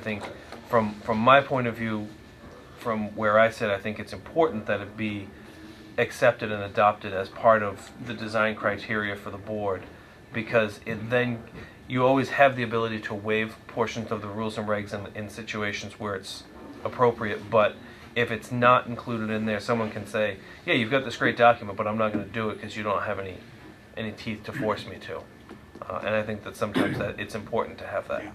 I think from from my point of view, from where I sit, I think it's important that it be accepted and adopted as part of the design criteria for the board because it then you always have the ability to waive portions of the rules and regs in, in situations where it's appropriate but if it's not included in there someone can say yeah you've got this great document but i'm not going to do it because you don't have any any teeth to force me to uh, and i think that sometimes that it's important to have that Yeah.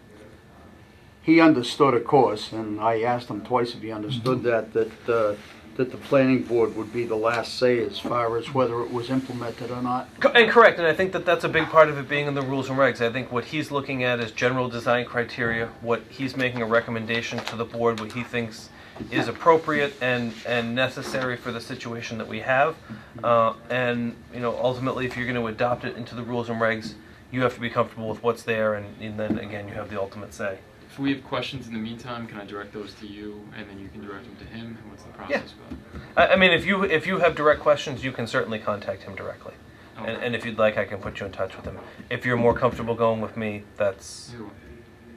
he understood, of course, and I asked him twice if he understood that, Mm-hmm. that, uh, that the planning board would be the last say as far as whether it was implemented or not. Co- And correct, and I think that that's a big part of it being in the rules and regs. I think what he's looking at is general design criteria, what he's making a recommendation to the board, what he thinks is appropriate and, and necessary for the situation that we have. Uh, and, you know, ultimately, if you're going to adopt it into the rules and regs, you have to be comfortable with what's there, and, and then again, you have the ultimate say. If we have questions in the meantime, can I direct those to you, and then you can direct them to him? And what's the process for that? I, I mean, if you if you have direct questions, you can certainly contact him directly. And, Okay. and if you'd like, I can put you in touch with him. If you're more comfortable going with me, that's. Either way.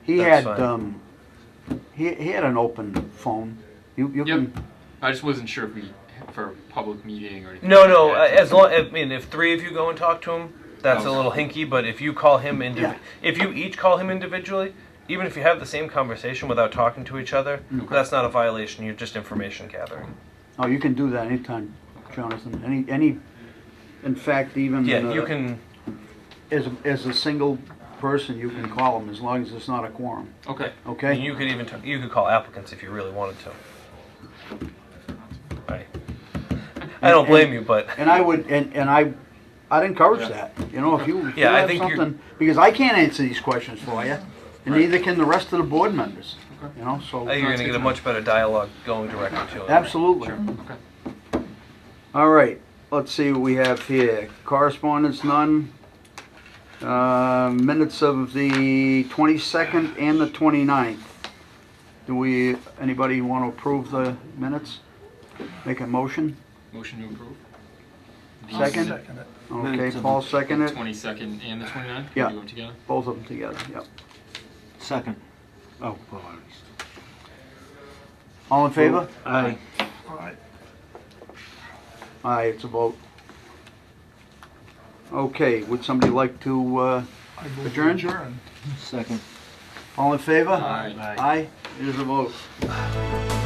He That's had, fine. um, he, he had an open phone. You, you Yep. can, I just wasn't sure if we for a public meeting or anything. No, like no. uh, that. As long, I mean, if three of you go and talk to him, that's a Okay. little hinky. But if you call him indiv- Yeah. if you each call him individually, even if you have the same conversation without talking to each other, Okay. that's not a violation. You're just information gathering. oh, you can do that anytime, Jonathan, any, any, in fact, even. Yeah, you uh, can. As, a- as a single person, you can call him as long as it's not a quorum, Okay. okay? You could even t- you could call applicants if you really wanted to. Right. I don't blame you, but And I would, and, and I, I'd encourage Yeah. that, you know, if you, if you Yeah, I have think you're- something, because I can't answer these questions for you, and Right. neither can the rest of the board members, Okay. you know, so. I think you're going to get a much better dialogue going directly to him. Absolutely. Sure. Okay. All right, let's see what we have here. Correspondence, none. Uh, minutes of the twenty-second and the 29th. Do we, anybody want to approve the minutes? Make a motion? Motion to approve. Second? Okay, Paul seconded, it. Twenty second and the 29th? Can Yeah. we Do them together. both of them together, yep. Second. Oh, well, I already said- All in favor? Aye. Aye, it's a vote. Okay, would somebody like to uh, adjourn? Second. All in favor? Aye. Aye, it is a vote.